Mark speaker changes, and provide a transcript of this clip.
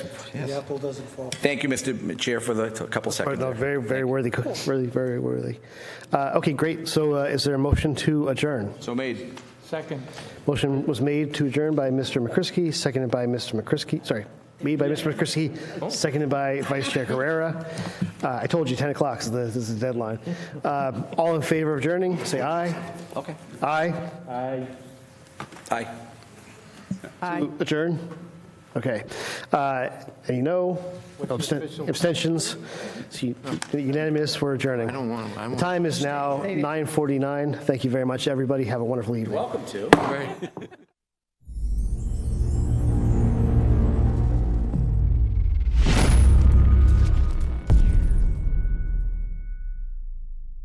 Speaker 1: The apple doesn't fall.
Speaker 2: Thank you, Mr. Chair, for the a couple
Speaker 3: All right,
Speaker 2: seconds.
Speaker 3: no,
Speaker 2: there.
Speaker 3: Very, very worthy, really, very worthy. Uh, Okay, great. So uh, is there a motion to adjourn?
Speaker 2: So made.
Speaker 4: Second.
Speaker 3: Motion was made to adjourn by Mr. McCrisky, seconded by Mr. McCrisky, sorry, made by Mr. McCrisky, seconded by Vice Chair Carrera. Uh, I told you 10 o'clock is the, this is the deadline. Uh, All in favor of adjourning, say aye.
Speaker 2: Okay.
Speaker 3: Aye.
Speaker 2: Aye.
Speaker 3: To Adjourn? Okay. Uh, Any no? Absten- Abstentions? So you- Unanimous, we're adjourning. I don't want to. The time is now 9:49. Thank you very much, everybody. Have a wonderful evening.
Speaker 2: Welcome to.